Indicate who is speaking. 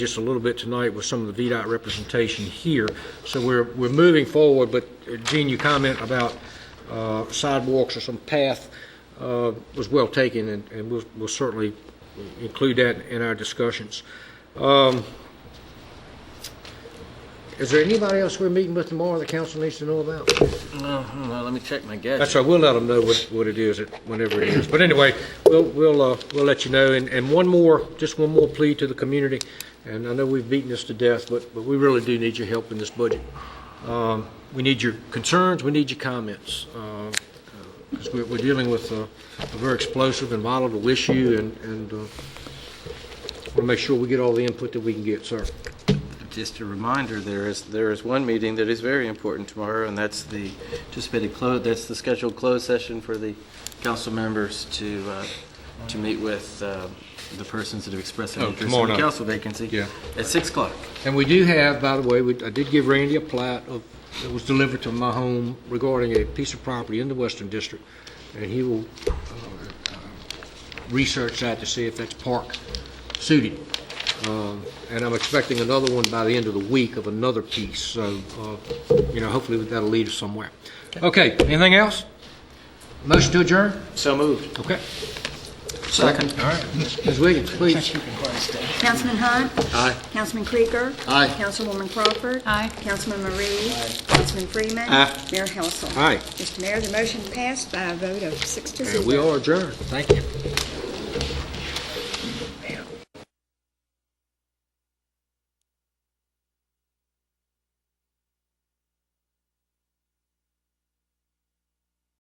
Speaker 1: just a little bit tonight with some of the VDOT representation here. So we're, we're moving forward, but uh, Gene, your comment about uh, sidewalks or some path uh, was well taken, and and we'll we'll certainly include that in our discussions. Um, Is there anybody else we're meeting with tomorrow the council needs to know about?
Speaker 2: Mm-hmm, Well, let me check my gadget.
Speaker 1: That's right, we'll let them know what, what it is, at- whenever it is. But anyway, we'll, we'll, uh, we'll let you know. And, and one more, just one more plea to the community, and I know we've beaten this to death, but, but we really do need your help in this budget. Um, We need your concerns, we need your comments, because we're, we're dealing with uh, a very explosive and volatile issue, and, and want to make sure we get all the input that we can get, sir.
Speaker 2: Just a reminder, there is, there is one meeting that is very important tomorrow, and that's the anticipated close, that's the scheduled closed session for the council members to, uh, to meet with uh, the persons that have expressed an
Speaker 1: Oh,
Speaker 2: interest
Speaker 1: tomorrow
Speaker 2: in the
Speaker 1: night.
Speaker 2: council vacancy.
Speaker 1: Yeah.
Speaker 2: At 6 o'clock.
Speaker 1: And we do have, by the way, we- I did give Randy a plat of, that was delivered to my home regarding a piece of property in the Western District, and he will uh, uh, research that to see if that's park suited. Um, And I'm expecting another one by the end of the week of another piece, so, uh, you know, hopefully that'll lead us somewhere. Okay, anything else? Motion to adjourn?
Speaker 2: So moved.
Speaker 1: Okay.
Speaker 2: Second.
Speaker 1: Ms. Wiggins, please.
Speaker 3: Councilman Hunt?
Speaker 2: Aye.
Speaker 3: Councilman Krieger?
Speaker 2: Aye.
Speaker 3: Councilwoman Crawford?
Speaker 4: Aye.
Speaker 3: Councilman Marie? Councilman Freeman?
Speaker 2: Aye.
Speaker 3: Mayor Household?
Speaker 1: Aye.
Speaker 3: Mr. Mayor, the motion passed by a vote of six to zero.
Speaker 1: And we are adjourned. Thank you.